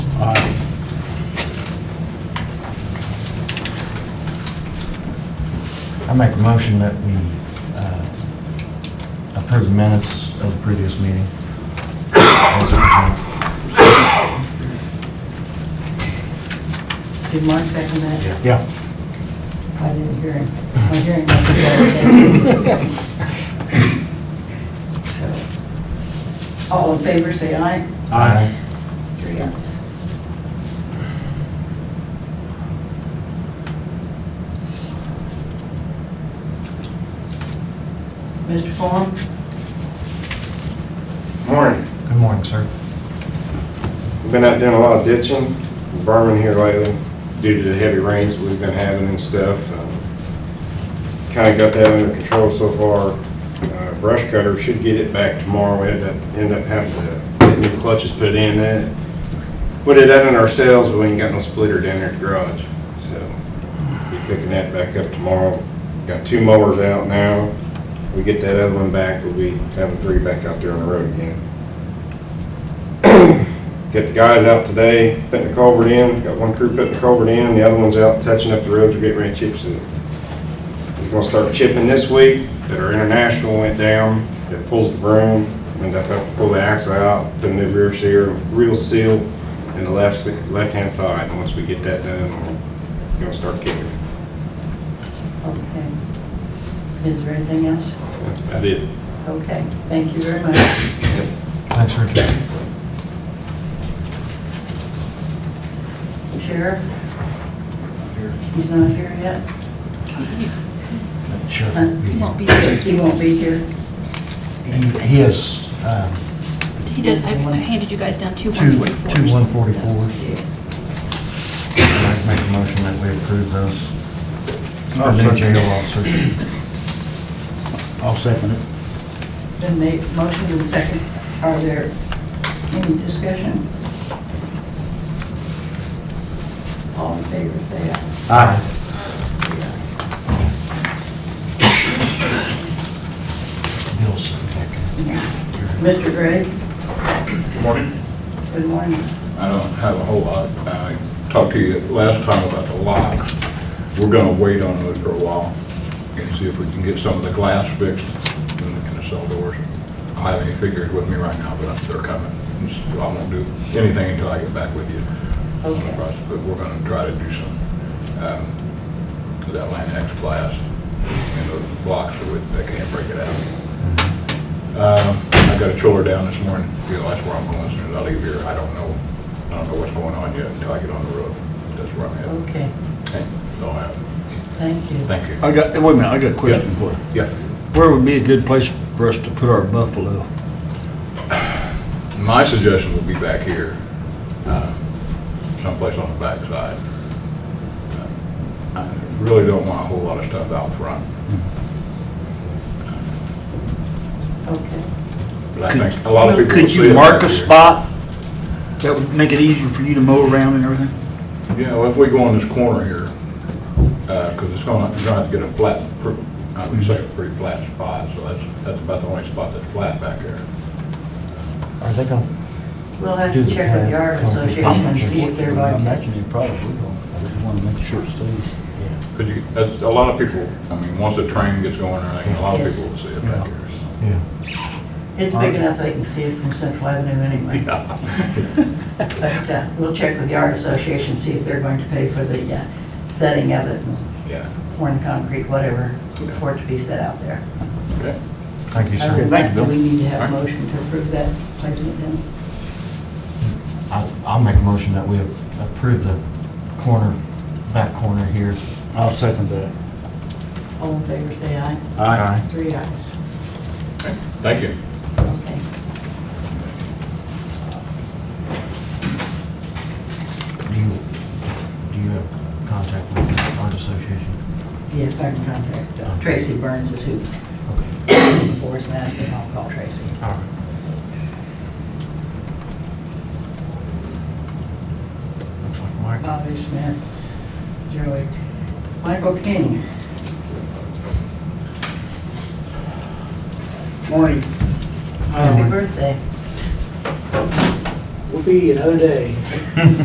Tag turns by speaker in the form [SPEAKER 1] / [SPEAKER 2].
[SPEAKER 1] I make a motion that we uh, approve the minutes of the previous meeting. As presented.
[SPEAKER 2] Did Mark second that?
[SPEAKER 3] Yeah.
[SPEAKER 2] I didn't hear him. My hearing was bad. So, all in favor, say aye.
[SPEAKER 1] Aye.
[SPEAKER 2] Three ayes. Mr. Form,
[SPEAKER 4] Morning.
[SPEAKER 1] Good morning, sir.
[SPEAKER 4] We've been out doing a lot of ditching, berming here lately due to the heavy rains that we've been having and stuff. Kind of got that under control so far. Uh, Brush cutter should get it back tomorrow. We ended up, ended up having to get new clutches put in that. We did that in ourselves, but we ain't got no splitter down there at the garage. So be picking that back up tomorrow. Got two mowers out now. We get that other one back, we'll be having three back out there on the road again. Get the guys out today, putting the culvert in, got one crew putting the culvert in, the other one's out touching up the roads, we're getting ready to chip seal. We're gonna start chipping this week, that our international went down, that pulls the broom, and that helped pull the axle out, put a new rear seal, real seal in the left, se- left-hand side, and once we get that done, we're gonna start kicking.
[SPEAKER 2] okay. Is there anything else?
[SPEAKER 4] That's about it.
[SPEAKER 2] Okay, thank you very much.
[SPEAKER 1] Thanks, Richard.
[SPEAKER 2] Sheriff? He's not here yet?
[SPEAKER 1] Sure.
[SPEAKER 2] Huh?
[SPEAKER 1] He
[SPEAKER 5] Won't be
[SPEAKER 2] He
[SPEAKER 5] here.
[SPEAKER 2] won't be here?
[SPEAKER 1] he is um,
[SPEAKER 5] He did, I handed you guys down two
[SPEAKER 1] two,
[SPEAKER 5] 144s.
[SPEAKER 1] two 144s.
[SPEAKER 2] Yes.
[SPEAKER 1] I make a motion that we approve those.
[SPEAKER 3] I'll
[SPEAKER 1] Our new
[SPEAKER 3] second.
[SPEAKER 1] jail officers.
[SPEAKER 3] I'll second it.
[SPEAKER 2] Been made, motion and second. Are there any discussion? All in favor, say aye.
[SPEAKER 1] Aye. Bill's second.
[SPEAKER 2] Mr. Gregg,
[SPEAKER 6] Good morning.
[SPEAKER 2] good morning.
[SPEAKER 6] I don't have a whole lot. I talked to you last time about the locks. We're gonna wait on those for a while and see if we can get some of the glass fixed in the- in the cell doors. I don't have any figures with me right now, but they're coming. I won't do anything until I get back with you on the
[SPEAKER 2] Okay.
[SPEAKER 6] process, but we're gonna try to do some, um, with that Land X glass and those blocks so it- they can't break it out. Um, I got a chiller down this morning, you know, that's where I'm going, as soon as I leave here, I don't know, I don't know what's going on yet until I get on the road, that's where I'm at.
[SPEAKER 2] Okay,
[SPEAKER 6] Okay, so, uh,
[SPEAKER 2] thank you.
[SPEAKER 6] Thank you.
[SPEAKER 3] I got, wait a minute, I got a question
[SPEAKER 6] Yeah.
[SPEAKER 3] for you.
[SPEAKER 6] Yeah,
[SPEAKER 3] Where would be a good place for us to put our buffalo?
[SPEAKER 6] my suggestion would be back here, um, someplace on the backside. Um, I really don't want a whole lot of stuff out front,
[SPEAKER 2] Okay,
[SPEAKER 6] but I think a lot of people will
[SPEAKER 3] Could
[SPEAKER 6] see
[SPEAKER 3] you
[SPEAKER 6] it
[SPEAKER 3] mark
[SPEAKER 6] back
[SPEAKER 3] a
[SPEAKER 6] here.
[SPEAKER 3] spot that would make it easier for you to mow around and everything?
[SPEAKER 6] Yeah, well, if we go on this corner here, because it's going to, trying to get a flat, pr- I would say a pretty flat spot, so that's, that's about the only spot that's flat back there.
[SPEAKER 1] Are they going,
[SPEAKER 2] we'll have
[SPEAKER 1] Do
[SPEAKER 2] to
[SPEAKER 1] the
[SPEAKER 2] check with the
[SPEAKER 1] plan.
[SPEAKER 2] art association and see if they're going to.
[SPEAKER 3] you probably will. I just want to make sure it's safe.
[SPEAKER 1] yeah,
[SPEAKER 6] Because you, that's, a lot of people, I mean, once the train gets going, I think a lot of people will see it back here.
[SPEAKER 1] yeah.
[SPEAKER 2] It's big enough they can see it from Central Avenue anyway. But uh, we'll check with the art association, see if they're going to pay for the uh, setting of it, and
[SPEAKER 6] Yeah,
[SPEAKER 2] pouring concrete, whatever, for it to be set out there.
[SPEAKER 6] okay.
[SPEAKER 1] Thank you,
[SPEAKER 2] Other
[SPEAKER 1] sir.
[SPEAKER 2] than
[SPEAKER 3] thank
[SPEAKER 2] that,
[SPEAKER 3] you,
[SPEAKER 2] do we
[SPEAKER 3] Bill.
[SPEAKER 2] need to have a
[SPEAKER 6] All right.
[SPEAKER 2] motion to approve that placement then?
[SPEAKER 1] I'll, I'll make a motion that we approve the corner, back corner here.
[SPEAKER 3] I'll second that.
[SPEAKER 2] All in favor, say aye. Three ayes.
[SPEAKER 6] Okay. Thank you.
[SPEAKER 2] Okay.
[SPEAKER 1] Do you, do you have contact with the art association?
[SPEAKER 2] Yes, I can contact uh, Tracy Burns is who
[SPEAKER 1] Okay.
[SPEAKER 2] before us and ask him, I'll call Tracy.
[SPEAKER 1] All right. Looks like Mike.
[SPEAKER 2] Bobby Smith, Joey, Michael King.
[SPEAKER 7] Morning.
[SPEAKER 2] Happy birthday.
[SPEAKER 7] Will be another day.